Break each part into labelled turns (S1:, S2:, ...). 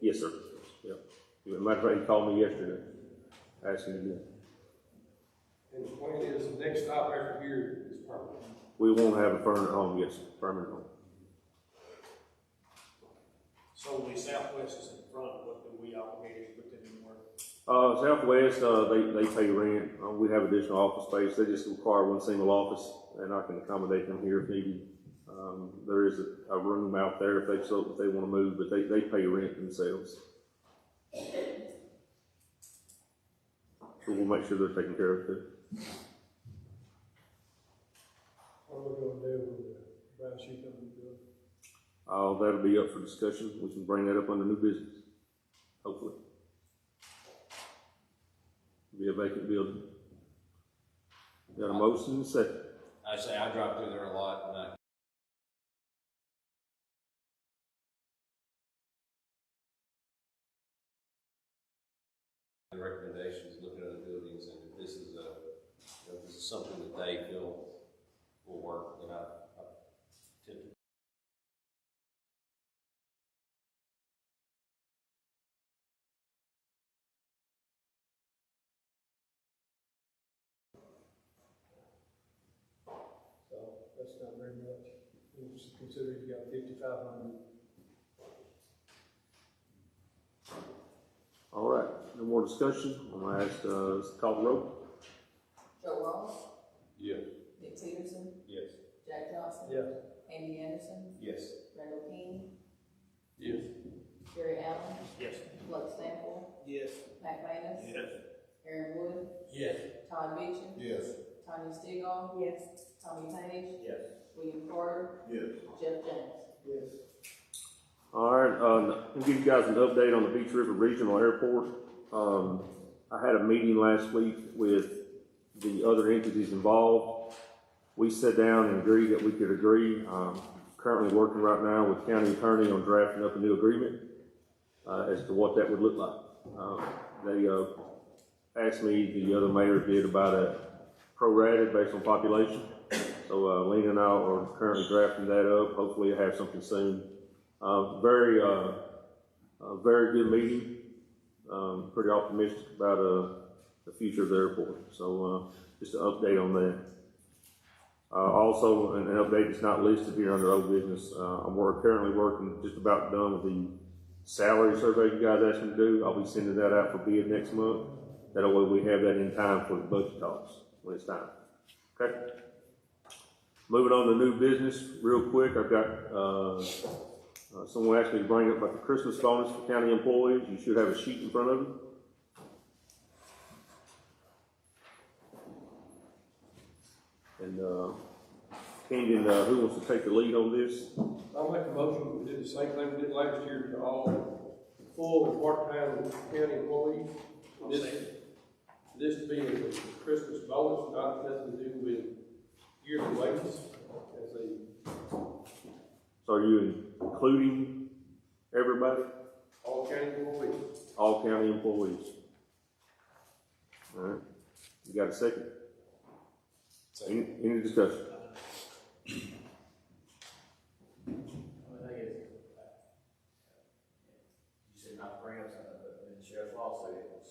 S1: Yes, sir. Yep. As a matter of fact, he called me yesterday, asking again.
S2: And the point is, the next stop after here is permanent.
S1: We won't have a permanent home, yes, permanent home.
S3: So the southwest is in front, what do we obligate to put them in work?
S1: Uh, Southwest, uh, they, they pay rent, uh, we have additional office space, they just require one single office, and I can accommodate them here if needed. Um, there is a, a room out there if they, so, if they wanna move, but they, they pay rent themselves. So we'll make sure they're taken care of too.
S4: What are we gonna do with the brown sheet on the bill?
S1: Uh, that'll be up for discussion, we can bring that up under new business, hopefully. Be a vacant building. Got a motion, and a second.
S5: I say I drive through there a lot, and I the recommendations, looking at other buildings, and if this is a, you know, if this is something that they feel will work, then I, I tend to.
S4: So, that's not very much, Just consider you got fifty-five hundred.
S1: All right, no more discussion. I'm gonna ask, uh, call the roll.
S6: Joe Ross,
S5: Yes.
S6: Nick Peterson,
S5: Yes.
S6: Jack Johnson.
S4: Yes.
S6: Andy Anderson,
S5: Yes.
S6: Randall King,
S5: Yes.
S6: Gary Allen,
S3: Yes.
S6: Lux Sample,
S3: Yes.
S6: Matt Manus.
S3: Yes.
S6: Aaron Wood,
S3: Yes.
S6: Todd Beecham.
S2: Yes.
S6: Tony Stigall. Yes. Tommy Page,
S3: Yes.
S6: William Carter,
S2: Yes.
S6: Jeff James.
S4: Yes.
S1: All right, uh, I'll give you guys an update on the Beach River Regional Airport. Um, I had a meeting last week with the other entities involved. We sat down and agreed that we could agree. Um, currently working right now with county attorney on drafting up a new agreement, uh, as to what that would look like. Uh, they, uh, asked me, the other mayor did about a prorated based on population. So, uh, Lena and I are currently drafting that up. Hopefully I have something soon. Uh, very, uh, uh, very good meeting. Um, pretty optimistic about, uh, the future of the airport. So, uh, just an update on that. Uh, also, an, an update that's not listed here under old business. Uh, I'm work, currently working just about done with the salary survey you guys asked me to do. I'll be sending that out for bid next month. That way we have that in time for the budget talks when it's time. Okay? Moving on to new business, real quick, I've got, uh, uh, someone asked me to bring up about the Christmas bonus for county employees. You should have a sheet in front of you. And, uh, Kenyon, uh, who wants to take the lead on this?
S2: I'll make a motion, we did the same thing we did last year to all full and part-time county employees.
S3: I'll
S2: This, this being a Christmas bonus, not nothing to do with yearly wages, as a,
S1: So are you including everybody,
S2: all county employees.
S1: all county employees? All right, you got a second? Any, any discussion?
S7: I think it's, you said not to bring up something, but in the sheriff's lawsuit, it was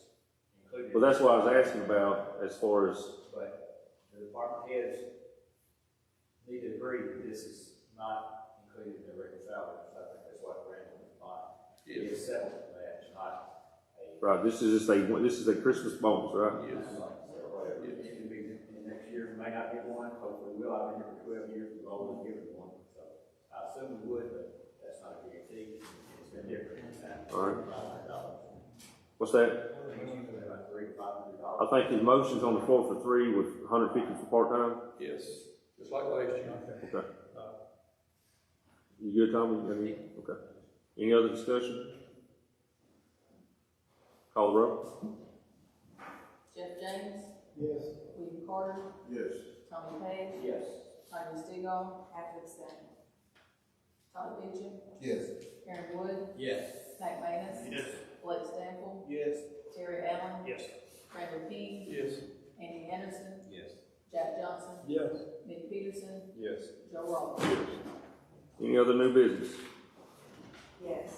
S7: included.
S1: Well, that's what I was asking about as far as,
S7: But the department heads need to agree that this is not included in their regular salary, so I think that's what Randall was buying. It is separate, but it's not a,
S1: right, this is just a, this is a Christmas bonus, right?
S7: or whatever. It could be in next year, we may not get one, hopefully we will, I've been here for twelve years, we've always given one, so I assume we would, but that's not a guarantee, it's been different.
S1: All right.
S7: $500.
S1: What's that? I think his motion's on the floor for three with hundred fifty for part-time.
S2: Yes. Just like last year.
S1: You good, Tommy? Any, okay. Any other discussion? Call the roll.
S6: Jeff James,
S4: Yes.
S6: William Carter. Yes. Tommy Page,
S7: Yes.
S6: Tony Stigall. Patrick Sam. Todd Beecham. Yes. Aaron Wood,
S7: Yes.
S6: Matt Manus.
S3: Yes.
S6: Blake Sample,
S3: Yes.
S6: Terry Allen,
S3: Yes.
S6: Randall King,
S2: Yes.
S6: Andy Anderson,
S5: Yes.
S6: Jack Johnson,
S4: Yes.
S6: Nick Peterson,
S5: Yes.
S6: Joe Ross.
S1: Any other new business?
S6: Yes.